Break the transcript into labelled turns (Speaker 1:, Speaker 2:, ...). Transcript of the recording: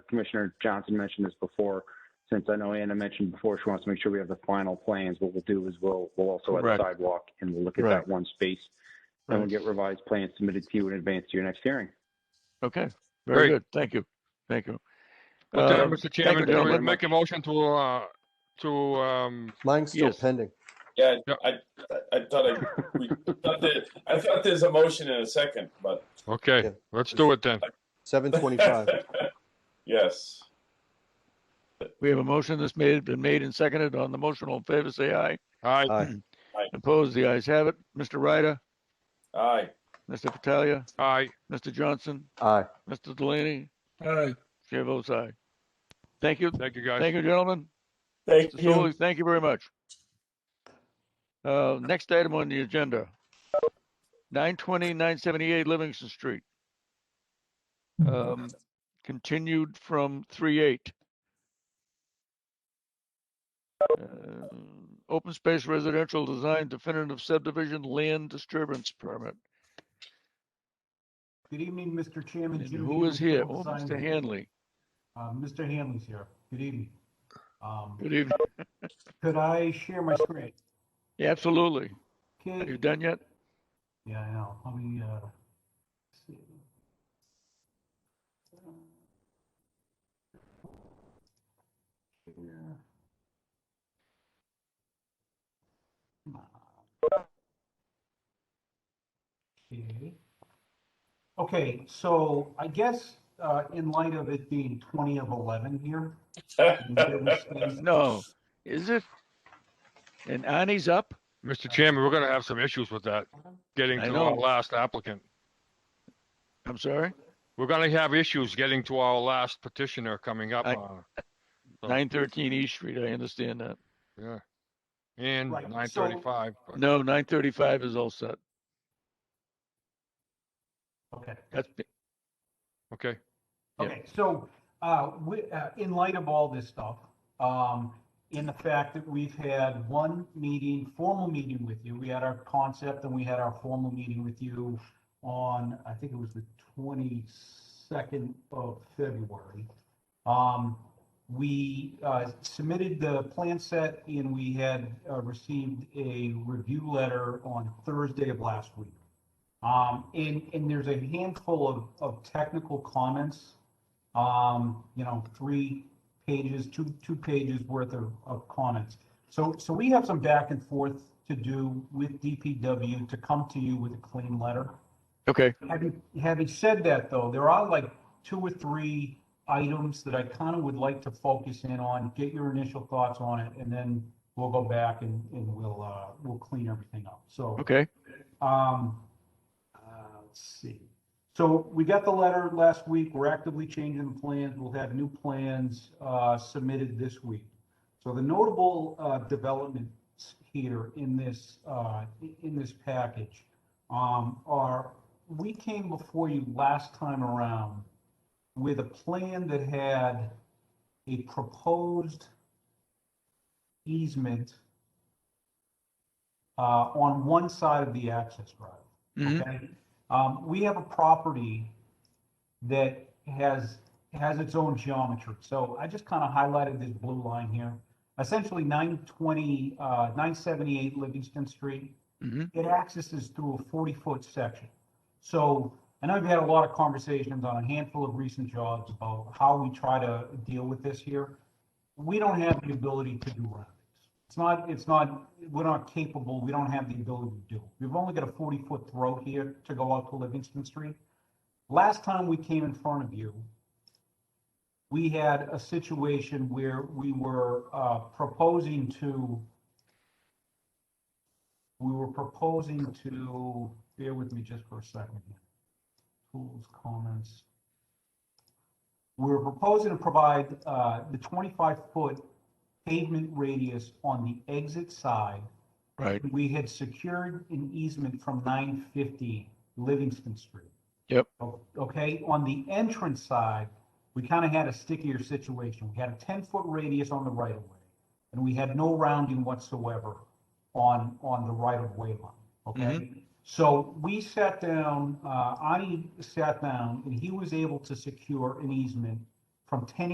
Speaker 1: Commissioner Johnson mentioned this before. Since I know Anna mentioned before, she wants to make sure we have the final plans. What we'll do is we'll, we'll also add a
Speaker 2: Correct.
Speaker 1: sidewalk and we'll look at
Speaker 2: Right.
Speaker 1: that one space. And we'll
Speaker 2: Right.
Speaker 1: get revised plans submitted to you in advance to your next hearing.
Speaker 2: Okay,
Speaker 3: Great.
Speaker 2: very good. Thank you. Thank you.
Speaker 3: With that,
Speaker 2: Um,
Speaker 3: Mr.
Speaker 2: you,
Speaker 3: Chairman, can we
Speaker 2: gentlemen.
Speaker 3: make a motion to, uh, to, um,
Speaker 4: Mine's still
Speaker 2: Yes.
Speaker 4: pending.
Speaker 5: Yeah,
Speaker 3: Yeah.
Speaker 5: I, I- I thought I, we, thought that, I thought there's a motion in a second, but.
Speaker 4: Yeah.
Speaker 3: okay, let's do it then.
Speaker 4: Seven twenty-five.
Speaker 5: Yes,
Speaker 2: We have a motion that's made, been made and seconded on the motion. All in favor, say aye.
Speaker 3: Aye.
Speaker 4: Aye.
Speaker 2: Opposed, the ayes have it. Mr. Ryder,
Speaker 5: aye,
Speaker 2: Mr. Patalia,
Speaker 3: Aye.
Speaker 2: Mr. Johnson,
Speaker 4: Aye.
Speaker 2: Mr. Delaney,
Speaker 6: Aye.
Speaker 2: chair votes aye. Thank you.
Speaker 3: Thank you, guys.
Speaker 2: Thank you, gentlemen.
Speaker 5: thank
Speaker 2: Mr. Solly, thank you very much. Uh, next item on the agenda, 920, 978 Livingston Street. Um, continued from 38. Uh, Open space residential design definitive subdivision land disturbance permit.
Speaker 7: Good evening, Mr. Chairman.
Speaker 2: And
Speaker 7: Jim
Speaker 2: who is here?
Speaker 7: Beaver,
Speaker 2: Oh,
Speaker 7: Field
Speaker 2: Mr.
Speaker 7: Design.
Speaker 2: Hanley.
Speaker 7: Uh, Mr. Hanley's here. Good evening. Um,
Speaker 2: Good evening.
Speaker 7: Could I share my screen?
Speaker 2: Yeah, Absolutely. Are you
Speaker 7: Okay.
Speaker 2: done yet?
Speaker 7: Yeah, I know. Let me, uh, see. Here. Come on. Okay. Okay, so I guess, uh, in light of it being twenty of eleven here, and there was things-
Speaker 2: No. Is it? And Annie's up?
Speaker 3: Mr. Chairman, we're gonna have some issues with that, getting
Speaker 2: I
Speaker 3: to
Speaker 2: know.
Speaker 3: our last applicant.
Speaker 2: I'm sorry?
Speaker 3: We're gonna have issues getting to our last petitioner coming up,
Speaker 2: I-
Speaker 3: uh, So-
Speaker 2: Nine thirteen East Street, I understand that.
Speaker 3: yeah. And
Speaker 7: Right, so-
Speaker 3: nine thirty-five.
Speaker 2: No, nine thirty-five is all set.
Speaker 7: okay.
Speaker 2: That's,
Speaker 3: Okay,
Speaker 2: Yeah.
Speaker 7: Okay, so, uh, we, uh, in light of all this stuff, um, in the fact that we've had one meeting, formal meeting with you, we had our concept and we had our formal meeting with you on, I think it was the twenty-second of February. Um, we, uh, submitted the plan set and we had, uh, received a review letter on Thursday of last week. Um, and, and there's a handful of, of technical comments. Um, you know, three pages, two, two pages worth of, of comments. So, so we have some back and forth to do with DPW to come to you with a clean letter.
Speaker 2: okay,
Speaker 7: Having, having said that though, there are like two or three items that I kind of would like to focus in on, get your initial thoughts on it, and then we'll go back and, and we'll, uh, we'll clean everything up. So.
Speaker 2: okay,
Speaker 7: Um, uh, let's see. So we got the letter last week. We're actively changing the plans. We'll have new plans, uh, submitted this week. So the notable, uh, developments here in this, uh, in this package, um, are, we came before you last time around with a plan that had a proposed easement uh, on one side of the access road.
Speaker 2: mhm,
Speaker 7: Okay. Um, we have a property that has, has its own geometry. So I just kind of highlighted this blue line here. Essentially nine twenty, uh, nine seventy-eight Livingston Street.
Speaker 2: Mhm.
Speaker 7: It accesses through a forty-foot section. So I know we've had a lot of conversations on a handful of recent jobs about how we try to deal with this here. We don't have the ability to do roundings. It's not, it's not, we're not capable, we don't have the ability to do. it. We've only got a forty-foot throat here to go out to Livingston Street. Last time we came in front of you, we had a situation where we were, uh, proposing to, we were proposing to, bear with me just for a second. here. Tools, comments. We were proposing to provide, uh, the twenty-five foot pavement radius on the exit side.
Speaker 2: right,
Speaker 7: We had secured an easement from nine fifty Livingston Street.
Speaker 2: Yep.
Speaker 7: O- Okay, on the entrance side, we kind of had a stickier situation. We had a ten foot radius on the right of way. And we had no rounding whatsoever on, on the right of way line,
Speaker 2: Mm-hmm.
Speaker 7: okay? So we sat down, uh, Ani sat down and he was able to secure an easement from ten